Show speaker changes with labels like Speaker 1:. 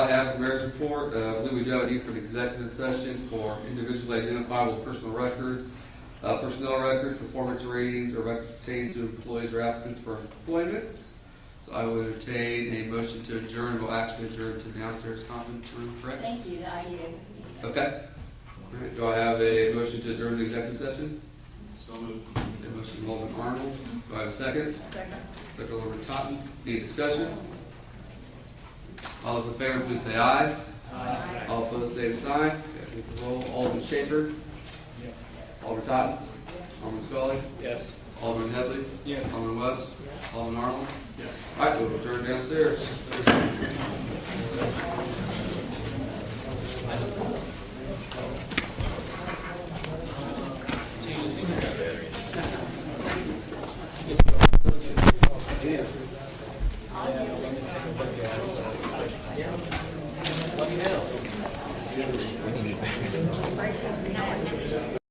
Speaker 1: After mayor's report, uh, I believe we do have a need for an executive session for individually identifiable personal records, uh, personnel records, performance ratings, or records pertaining to employees or applicants for employment. So I would entertain a motion to adjourn, we'll actually adjourn to the downstairs conference room, correct?
Speaker 2: Thank you, the IU.
Speaker 1: Okay. All right, do I have a motion to adjourn the executive session?
Speaker 3: So moved.
Speaker 1: A motion from Alderman Arnold, do I have a second? Second Alderman Totten, any discussion? All those in favor, please say aye.
Speaker 2: Aye.
Speaker 1: All opposed, same sign. Okay, we can Roll, Alderman Schaper. Alderman Totten. Alderman Scully.
Speaker 3: Yes.
Speaker 1: Alderman Headley.
Speaker 3: Yes.
Speaker 1: Alderman West. Alderman Arnold.
Speaker 3: Yes.
Speaker 1: All right, we'll turn downstairs.
Speaker 2: Break